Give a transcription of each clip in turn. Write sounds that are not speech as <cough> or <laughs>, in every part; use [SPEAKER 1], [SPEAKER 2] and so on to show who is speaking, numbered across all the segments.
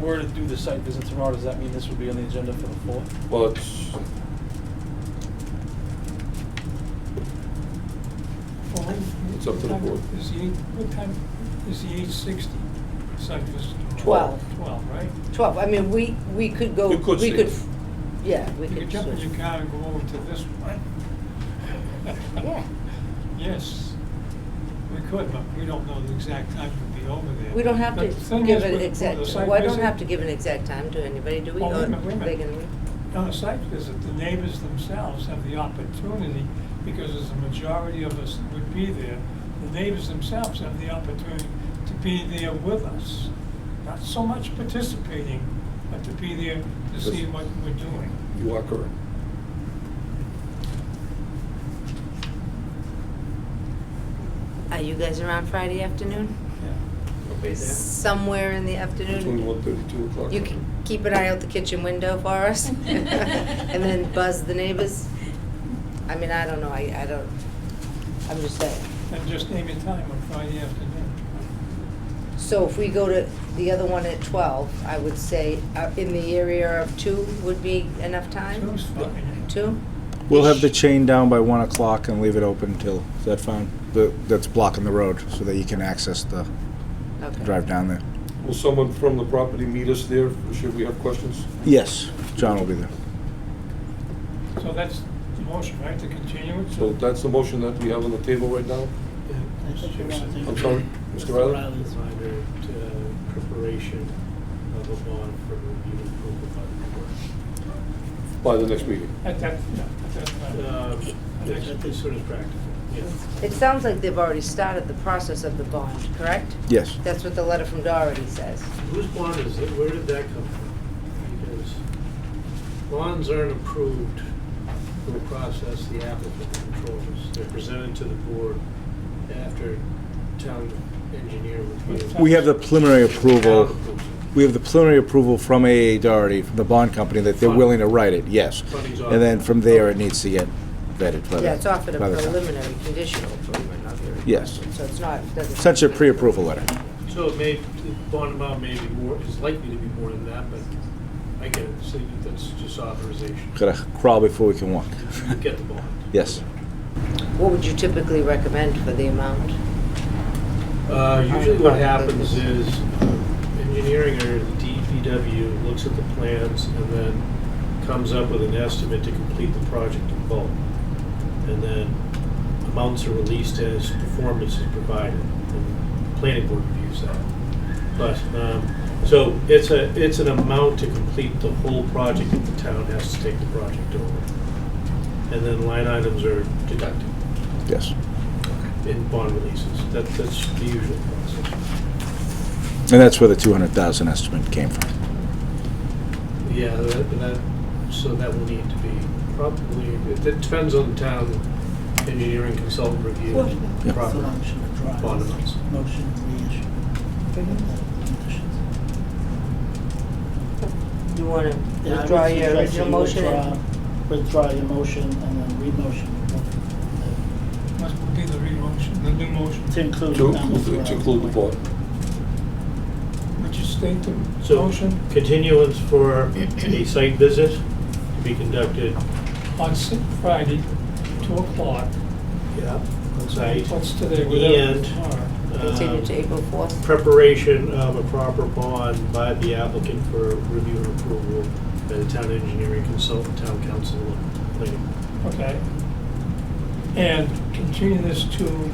[SPEAKER 1] were to do the site visit tomorrow, does that mean this would be on the agenda for the fourth?
[SPEAKER 2] Well, it's,
[SPEAKER 3] Well,
[SPEAKER 2] It's up to the
[SPEAKER 3] what time
[SPEAKER 2] board.
[SPEAKER 3] Is the eight, what time, is the eight sixty site visit? tomorrow?
[SPEAKER 4] Twelve.
[SPEAKER 3] Twelve, right?
[SPEAKER 4] 12, I mean, we, we could go, we
[SPEAKER 2] You could
[SPEAKER 4] could,
[SPEAKER 2] see it.
[SPEAKER 4] yeah, we
[SPEAKER 3] You
[SPEAKER 4] could.
[SPEAKER 3] could jump in
[SPEAKER 4] switch.
[SPEAKER 3] your car and go over to this one.
[SPEAKER 4] Yeah,
[SPEAKER 3] <laughs> Yes, we could, but we don't know the exact time to be over there.
[SPEAKER 4] we don't have
[SPEAKER 3] But the
[SPEAKER 4] to
[SPEAKER 3] thing
[SPEAKER 4] give
[SPEAKER 3] is
[SPEAKER 4] an
[SPEAKER 3] with- with
[SPEAKER 4] exact,
[SPEAKER 3] the site
[SPEAKER 4] well, I don't
[SPEAKER 3] visit-
[SPEAKER 4] have to give an exact time to anybody, do we?
[SPEAKER 3] Oh, wait a
[SPEAKER 4] Or
[SPEAKER 3] minute, wait a
[SPEAKER 4] they
[SPEAKER 3] minute.
[SPEAKER 4] can-
[SPEAKER 3] On a site visit, the neighbors themselves have the opportunity, because as the majority of us would be there, the neighbors themselves have the opportunity to be there with us. Not so much participating, but to be there to see what we're doing.
[SPEAKER 2] you are correct.
[SPEAKER 4] Are you guys around Friday afternoon?
[SPEAKER 3] Yeah.
[SPEAKER 4] Somewhere in the afternoon?
[SPEAKER 2] Between one thirty, two o'clock.
[SPEAKER 4] You can keep an eye out the kitchen window for <laughs> us and then buzz the neighbors? I mean, I don't know, I, I don't, I'm just saying.
[SPEAKER 3] And just name your time on Friday afternoon.
[SPEAKER 4] So if we go to the other one at 12, I would say uh, in the area of 2 would be enough time?
[SPEAKER 3] Two's fine.
[SPEAKER 4] 2?
[SPEAKER 5] We'll have the chain down by one o'clock and leave it open until, is that fine? The, that's blocking the road so that you can access the,
[SPEAKER 4] Okay.
[SPEAKER 5] drive down there.
[SPEAKER 2] Will someone from the property meet us there, should we have questions?
[SPEAKER 5] Yes, John will be there.
[SPEAKER 3] So that's the motion, right, to continue it?
[SPEAKER 2] So that's the motion that we have on the table right now? I'm sorry, Mr. Riley?
[SPEAKER 6] Riley's under uh, preparation of a bond for review and approval by
[SPEAKER 2] By the next meeting?
[SPEAKER 3] At that, yeah, at that
[SPEAKER 6] the
[SPEAKER 3] time.
[SPEAKER 6] board. Um, That is sort of practical, yes.
[SPEAKER 4] It sounds like they've already started the process of the bond, correct?
[SPEAKER 5] Yes.
[SPEAKER 4] That's what the letter from Doherty says.
[SPEAKER 6] Whose bond is it? Where did that come from? Because bonds aren't approved through a process the applicant controls. They're presented to the board after town engineer review.
[SPEAKER 5] We have the preliminary
[SPEAKER 6] Town
[SPEAKER 5] approval,
[SPEAKER 6] approves it.
[SPEAKER 5] we have the preliminary approval from AA Doherty, from the bond company, that they're willing to write it, yes.
[SPEAKER 6] Funding's on.
[SPEAKER 5] And then from there, it needs to get vetted by the.
[SPEAKER 4] Yeah, it's offered a
[SPEAKER 5] by the town.
[SPEAKER 4] preliminary conditional approval, not your...
[SPEAKER 5] Yes.
[SPEAKER 4] So it's not, it doesn't...
[SPEAKER 5] Essentially a pre-approval letter.
[SPEAKER 6] So it may, the bond amount may be more, is likely to be more than that, but I get it, so you- that's just authorization.
[SPEAKER 5] Gotta crawl before we can walk.
[SPEAKER 6] You get the bond.
[SPEAKER 5] Yes.
[SPEAKER 4] What would you typically recommend for the amount?
[SPEAKER 6] Uh, Usually what happens is uh, engineering or the DPW looks at the plans and then comes up with an estimate to complete the project in bulk. And then amounts are released as performance is provided, and the planning board reviews that. But, um, so it's a, it's an amount to complete the whole project if the town has to take the project over. And then line items are deducted
[SPEAKER 5] Yes.
[SPEAKER 6] in bond releases. That, that's the usual process.
[SPEAKER 5] And that's where the 200,000 estimate came from.
[SPEAKER 6] Yeah, that, that, so that will need to be probably, it it depends on the town engineering consultant review.
[SPEAKER 5] Yeah.
[SPEAKER 6] proper Bond amounts.
[SPEAKER 7] Motion to reissue. Conditions.
[SPEAKER 4] You want to
[SPEAKER 7] Yeah, I would
[SPEAKER 4] withdraw your
[SPEAKER 7] suggest you
[SPEAKER 4] original motion? and-
[SPEAKER 7] withdraw- Withdraw your motion and then re-motion.
[SPEAKER 3] Must be the re-motion, the new motion.
[SPEAKER 7] To include.
[SPEAKER 2] To
[SPEAKER 7] down
[SPEAKER 2] include,
[SPEAKER 7] the-
[SPEAKER 2] to include the board.
[SPEAKER 3] Would you state the
[SPEAKER 6] So
[SPEAKER 3] motion
[SPEAKER 6] continuance for
[SPEAKER 4] <clears throat>
[SPEAKER 6] a site visit to be conducted.
[SPEAKER 3] on Si- Friday, 2 o'clock?
[SPEAKER 6] Yeah. On site.
[SPEAKER 3] What's today, whatever
[SPEAKER 6] And-
[SPEAKER 3] tomorrow?
[SPEAKER 4] Continue to
[SPEAKER 6] um,
[SPEAKER 4] April 4th?
[SPEAKER 6] Preparation of a proper bond by the applicant for review and approval by the town engineering consultant, town council, and planning. board.
[SPEAKER 3] Okay. And continue this to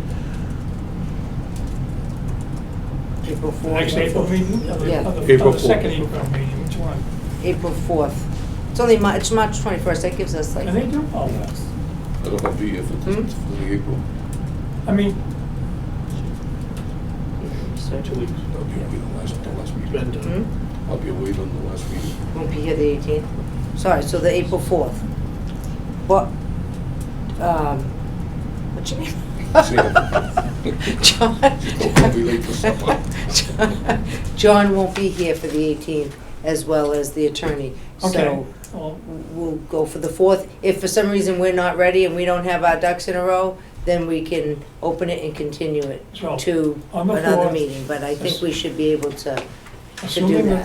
[SPEAKER 4] April
[SPEAKER 3] the next April meeting? Or the-
[SPEAKER 4] Yeah.
[SPEAKER 3] or the- or
[SPEAKER 2] April
[SPEAKER 3] the second
[SPEAKER 2] fourth.
[SPEAKER 3] April meeting, which one?
[SPEAKER 4] April 4th. It's only, Mar- it's March 21st, that gives us like...
[SPEAKER 3] And they do all that.
[SPEAKER 2] I don't have to be here for
[SPEAKER 4] Hmm?
[SPEAKER 2] for the April.
[SPEAKER 3] I mean,
[SPEAKER 6] Two weeks.
[SPEAKER 2] I'll be away on the last, the last
[SPEAKER 6] Been
[SPEAKER 2] meeting.
[SPEAKER 6] done.
[SPEAKER 4] Hmm?
[SPEAKER 2] I'll be away on the last meeting.
[SPEAKER 4] Won't be here the 18th. Sorry, so the April 4th. But, um, what's your name?
[SPEAKER 2] Sam.
[SPEAKER 4] <laughs> John.
[SPEAKER 2] Don't be late for
[SPEAKER 4] <laughs>
[SPEAKER 2] supper.
[SPEAKER 4] John won't be here for the 18th, as well as the attorney.
[SPEAKER 3] okay.
[SPEAKER 4] So
[SPEAKER 3] Well,
[SPEAKER 4] we'll go for the 4th. If for some reason we're not ready and we don't have our ducks in a row, then we can open it and continue it
[SPEAKER 3] So,
[SPEAKER 4] to
[SPEAKER 3] on the
[SPEAKER 4] another
[SPEAKER 3] 4th,
[SPEAKER 4] meeting. But I think we should be able to, to do
[SPEAKER 3] assuming that
[SPEAKER 4] that.